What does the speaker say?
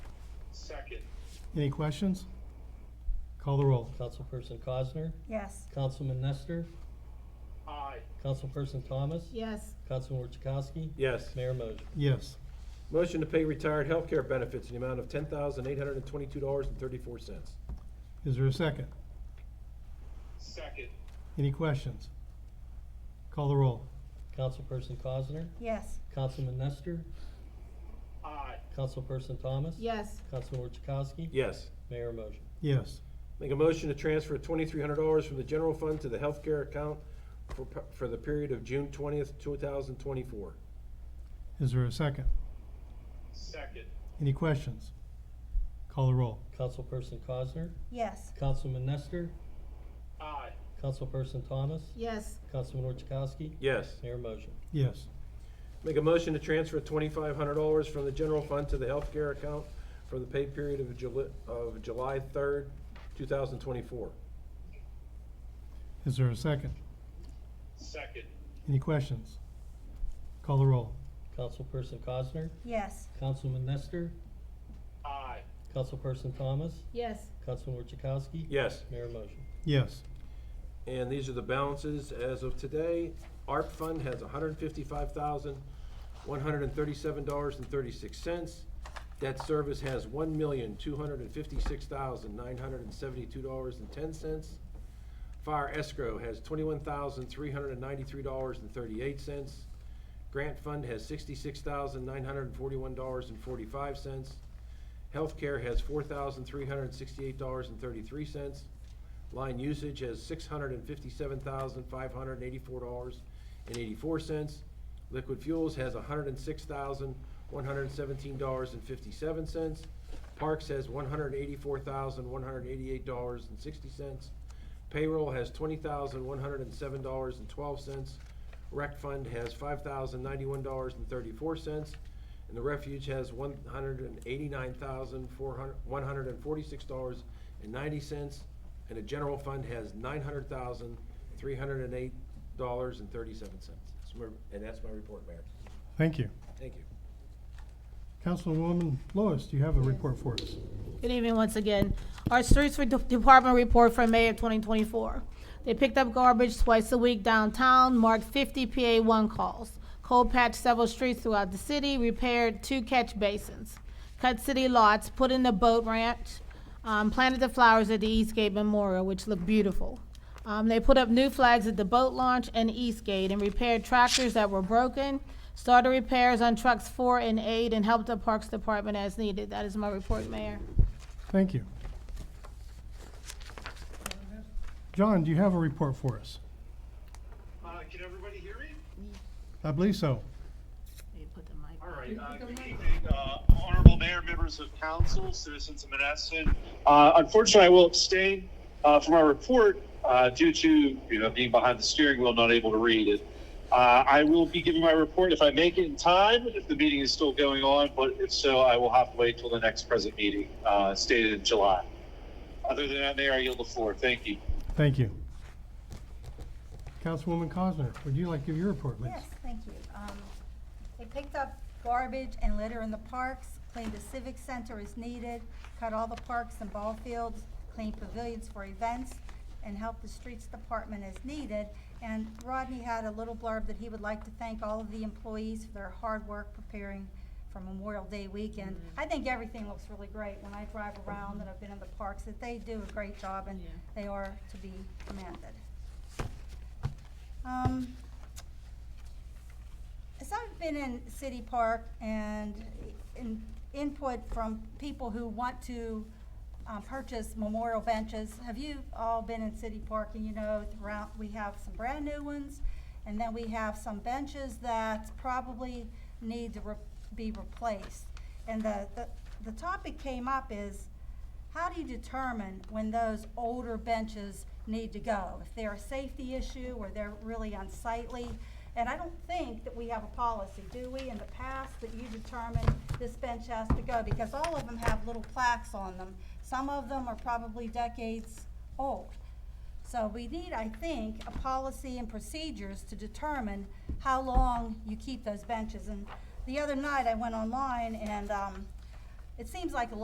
Any questions? Call the roll. Councilperson Cosner, Yes. Councilman Nestor, Aye. Councilperson Thomas, Yes. Councilman Chakowski, Yes. Mayor Mosher. Yes. Motion to pay retired healthcare benefits in the amount of ten thousand eight hundred and twenty-two dollars and thirty-four cents. Is there a second? Second. Any questions? Call the roll. Councilperson Cosner, Yes. Councilman Nestor, Aye. Councilperson Thomas, Yes. Councilman Chakowski, Yes. Mayor Mosher. Yes. Make a motion to transfer twenty-three hundred dollars from the general fund to the healthcare account for, for the period of June twentieth, two thousand twenty-four. Is there a second? Second. Any questions? Call the roll. Councilperson Cosner, Yes. Councilman Nestor, Aye. Councilperson Thomas, Yes. Councilman Chakowski, Yes. Mayor Mosher. Yes. Make a motion to transfer twenty-five hundred dollars from the general fund to the healthcare account for the pay period of July, of July third, two thousand twenty-four. Is there a second? Second. Any questions? Call the roll. Councilperson Cosner, Yes. Councilman Nestor, Aye. Councilperson Thomas, Yes. Councilman Chakowski, Yes. Mayor Mosher. Yes. And these are the balances as of today. ARP fund has hundred and fifty-five thousand, one hundred and thirty-seven dollars and thirty-six cents. Debt service has one million, two hundred and fifty-six thousand, nine hundred and seventy-two dollars and ten cents. Fire escrow has twenty-one thousand, three hundred and ninety-three dollars and thirty-eight cents. Grant fund has sixty-six thousand, nine hundred and forty-one dollars and forty-five cents. Healthcare has four thousand, three hundred and sixty-eight dollars and thirty-three cents. Line usage has six hundred and fifty-seven thousand, five hundred and eighty-four dollars and eighty-four cents. Liquid fuels has hundred and six thousand, one hundred and seventeen dollars and fifty-seven cents. Parks has one hundred and eighty-four thousand, one hundred and eighty-eight dollars and sixty cents. Payroll has twenty thousand, one hundred and seven dollars and twelve cents. Rec fund has five thousand, ninety-one dollars and thirty-four cents. And the refuge has one hundred and eighty-nine thousand, four hundred, one hundred and forty-six dollars and ninety cents. And the general fund has nine hundred thousand, three hundred and eight dollars and thirty-seven cents. And that's my report, Mayor. Thank you. Thank you. Councilwoman Lois, do you have a report for us? Good evening once again. Our streets for de- department report for May of 2024. They picked up garbage twice a week downtown, marked 50 PA1 calls, cold patched several streets throughout the city, repaired two catch basins, cut city lots, put in the boat ranch, um, planted the flowers at the Eastgate Memorial, which looked beautiful. Um, they put up new flags at the boat launch and Eastgate and repaired tractors that were broken, started repairs on trucks four and eight, and helped the Parks Department as needed. That is my report, Mayor. Thank you. John, do you have a report for us? Uh, can everybody hear me? I believe so. All right, uh, good evening, uh, honorable mayor, members of council, citizens of Menneson. Uh, unfortunately, I will abstain, uh, from our report, uh, due to, you know, being behind the steering wheel, not able to read it. Uh, I will be giving my report if I make it in time, if the meeting is still going on, but if so, I will have to wait till the next present meeting, uh, stated in July. Other than that, Mayor, I yield the floor. Thank you. Thank you. Councilwoman Cosner, would you like to give your report, please? Yes, thank you. Um, They picked up garbage and litter in the parks, cleaned the civic center as needed, cut all the parks and ball fields, cleaned pavilions for events, and helped the streets department as needed. And Rodney had a little blurb that he would like to thank all of the employees for their hard work preparing for Memorial Day weekend. I think everything looks really great when I drive around and I've been in the parks, that they do a great job and they are to be commended. Um, as I've been in City Park and in input from people who want to um, purchase memorial benches, have you all been in City Park and you know, throughout, we have some brand new ones, and then we have some benches that probably need to re- be replaced. And the, the, the topic came up is, how do you determine when those older benches need to go? If they're a safety issue or they're really unsightly? And I don't think that we have a policy, do we, in the past, that you determine this bench has to go? Because all of them have little plaques on them. Some of them are probably decades old. So we need, I think, a policy and procedures to determine how long you keep those benches. And the other night, I went online and, um, it seems like a